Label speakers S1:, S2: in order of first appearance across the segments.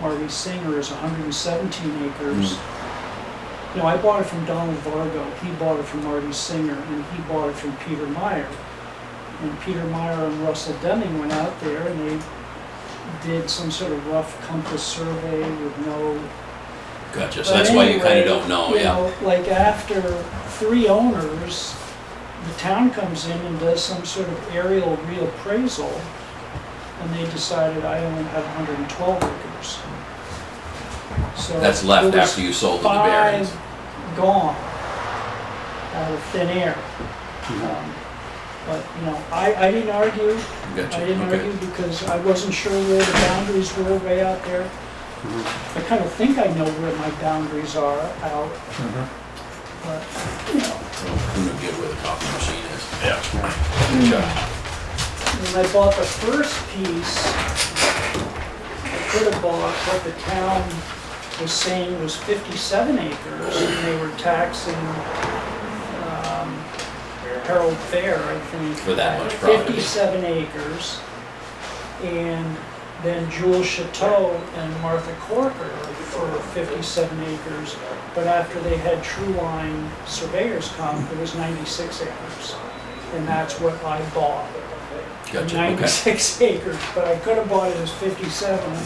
S1: Marty Singer is hundred and seventeen acres. No, I bought it from Donald Vargo, he bought it from Marty Singer, and he bought it from Peter Meyer. And Peter Meyer and Russell Deming went out there and they did some sort of rough compass survey with no
S2: Gotcha, so that's why you kinda don't know,
S1: but anyway,
S2: yeah.
S1: you know, Like after three owners, the town comes in and does some sort of aerial reappraisal, and they decided I only had hundred and twelve acres. So
S2: That's left after you sold to the
S1: Five
S2: Barons.
S1: gone out of thin air. Um, But, you know, I, I didn't argue, I
S2: Gotcha,
S1: didn't argue
S2: okay.
S1: because I wasn't sure where the boundaries were way out there.
S2: Mm-hmm.
S1: I kind of think I know where my boundaries are out.
S2: Mm-hmm.
S1: But, you know,
S2: Well, Who knew get where the copy machine is?
S1: when I bought the first piece, I could have bought what the town was saying was fifty-seven acres, and they were taxing, um, Harold Fair, I think.
S2: For that much
S1: at
S2: property.
S1: Fifty-seven acres, and then Jules Chateau and Martha Corker for fifty-seven acres. But after they had True Line surveyors come, it was ninety-six acres, and that's what I bought.
S2: Gotcha, okay.
S1: 96 acres, but I could have bought it as 57. Um,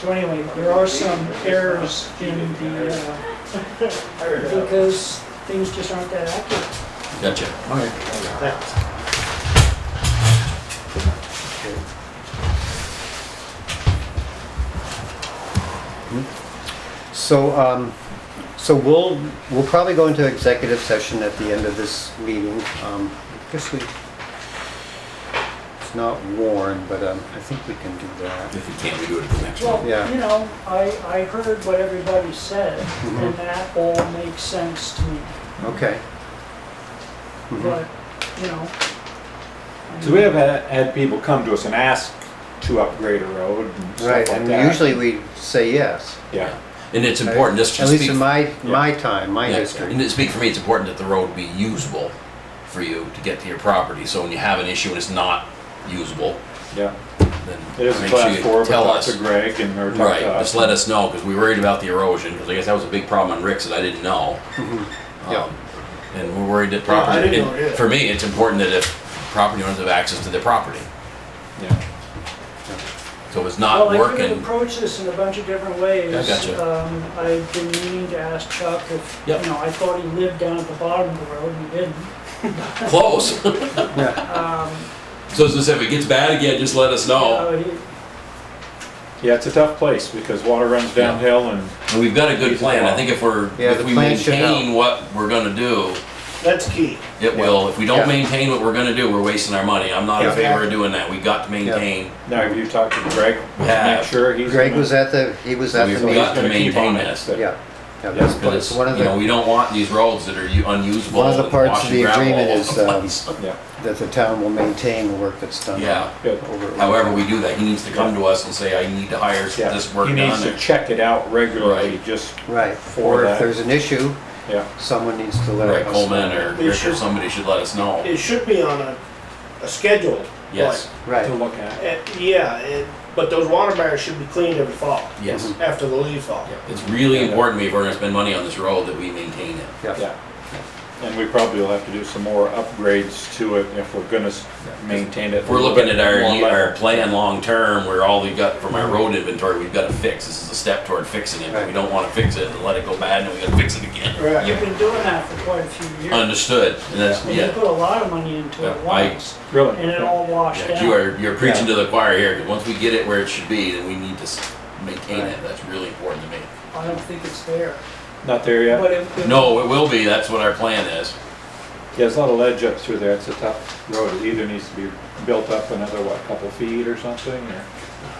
S1: So anyway, there are some errors in the, uh, because things just aren't that accurate.
S2: Gotcha.
S3: So, um, so we'll, we'll probably go into executive session at the end of this meeting. Um, I guess we, it's not warned, but, um, I think we can do that.
S2: If you can't, we do it at the next one.
S1: Well,
S3: Yeah.
S1: you know, I, I heard what everybody said,
S4: Mm-hmm.
S1: and
S3: Mhm.
S1: that all makes sense to me,
S3: Okay. Mhm.
S1: but, you know. I
S4: Mm-hmm. So we
S1: mean,
S4: have had had people come to us and ask to upgrade a road and
S3: Right,
S4: stuff like
S3: and
S4: that.
S3: usually we say yes.
S4: Yeah,
S2: And it's important, just to
S3: At least
S2: speak.
S3: in my, my time, my
S2: Yeah,
S3: history.
S2: And to speak for me, it's important that the road be usable for you to get to your property, so when you have an issue and it's not usable,
S4: yeah.
S2: then
S4: It
S2: make
S4: is
S2: sure
S4: a class
S2: you
S4: four, but
S2: tell
S4: talk
S2: us.
S4: to Greg and, or talk
S2: Right,
S4: to
S2: just
S4: us.
S2: let us know, because we worried about the erosion, because I guess that was a big problem on Rick's that I didn't know.
S3: Yeah.
S2: Um, And we're worried that
S5: Yeah, I
S2: property,
S5: didn't know
S2: and
S5: either.
S2: for me, it's important that if property owners have access to their property.
S4: Yeah.
S2: So if it's
S1: Well,
S2: not
S1: I could have
S2: working,
S1: approached this in a bunch of different ways.
S2: I gotcha.
S1: Um, I've been meaning to ask Chuck if, you
S2: Yep.
S1: know, I thought he lived down at the bottom of the road, and he didn't.
S2: close.
S3: Yeah.
S2: So as I said, if it gets bad again, just let us know.
S1: Uh, he-
S4: Yeah, it's a tough place because water runs downhill and
S2: And we've got a good plan, I think if we're,
S3: Yeah,
S2: if
S3: the
S2: we
S3: plan should
S2: maintain what we're gonna do,
S5: That's key.
S2: it will. If we
S3: Yeah.
S2: don't maintain what we're gonna do, we're wasting our money. I'm not in
S3: Yeah.
S2: favor of doing that, we got to maintain,
S4: now have you talked to Greg?
S2: Yeah.
S4: Make sure he's.
S3: Greg
S4: gonna-
S3: was at the, he was at
S2: we've
S3: the
S2: got to
S3: meeting.
S4: gonna keep
S2: maintain
S4: on it,
S2: this.
S4: so-
S3: Yeah. Yeah, that's, that's
S2: Because,
S3: one of
S2: you know,
S3: the,
S2: we don't want these roads that are u- unusable.
S3: one of the
S2: and
S3: parts
S2: wash
S3: of
S2: and
S3: the
S2: gravel all
S3: agreement
S2: over
S3: is,
S2: the
S3: um,
S2: place.
S4: Yeah,
S3: that the town will maintain the work that's done.
S2: Yeah.
S4: good.
S3: Over.
S2: However we do that, he needs to come to us and say, I need to hire
S4: Yeah.
S2: this work
S4: He needs to
S2: done.
S4: check it out regularly,
S2: Right.
S4: just,
S3: Right,
S4: For
S3: or if
S4: that.
S3: there's an issue,
S4: yeah.
S3: someone needs to let
S2: Right,
S3: us know.
S2: Coleman or
S5: It
S2: Rick or
S5: should-
S2: somebody should let us know.
S5: It should be on a, a schedule.
S2: Yes,
S4: To
S3: Right,
S4: look at.
S5: Eh, yeah, it, but those water barriers should be cleaned every fall,
S2: yes.
S5: after the leaves fall.
S3: Mm-hmm.
S2: Yeah, It's really
S4: Yeah.
S2: important to me if we're gonna spend money on this road that we maintain it.
S3: yeah,
S4: Yeah. And we probably will have to do some more upgrades to it if we're gonna s- maintain it.
S2: If we're looking at our,
S4: More
S2: ye- our
S4: level.
S2: plan long-term, where all we've got from our road inventory, we've gotta fix, this is a step toward fixing it. but We
S3: Mm-hmm. Right.
S2: don't wanna fix it and let it go bad and we gotta fix it again.
S5: Right.
S1: You've been doing that for quite a few years.
S2: Understood, and that's,
S1: And you
S2: yeah.
S1: put a lot of money into it
S2: Yeah, I-
S1: once,
S4: Really?
S1: and it all washed
S2: Yeah, you
S1: out.
S2: are, you're preaching to the choir here, 'cause once we get it where it should be, then we need to s- maintain it, that's really important to me.
S1: I don't think it's there.
S4: Not there yet?
S1: But if, if-
S2: No, it will be, that's what our plan is.
S4: Yeah, there's a lot of ledge up through there, it's a tough road, it either needs to be built up another, what, couple feet or something,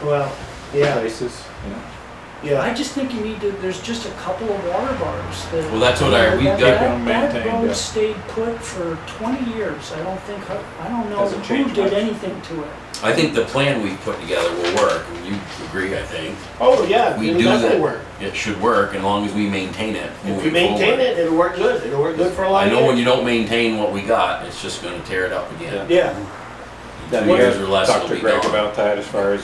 S4: or
S5: Well, yeah,
S4: places, you know?
S1: I
S5: yeah.
S1: just think you need to, there's just a couple of water bars that.
S2: Well, that's what I, we
S1: That-
S2: got,
S1: that- That
S4: maintained, yeah.
S1: road stayed put for 20 years. I don't think, I don't know
S4: Doesn't
S1: who
S4: change much.
S1: did anything to it.
S2: I think the plan we've put together will work, and you agree, I think.
S5: Oh, yeah,
S2: We
S5: it'll
S2: do
S5: definitely
S2: that.
S5: work.
S2: It should work, as long as we maintain it.
S5: If you
S2: moving
S5: maintain
S2: forward.
S5: it, it'll work good, it'll work good for a lot
S2: I
S5: of
S2: know when
S5: years.
S2: you don't maintain what we got, it's just gonna tear it up again.
S5: Yeah.
S4: Then
S2: Two
S4: we
S2: years
S4: have
S2: or less,
S4: talked
S2: it'll
S4: to
S2: be
S4: Greg
S2: gone.
S4: about that as far as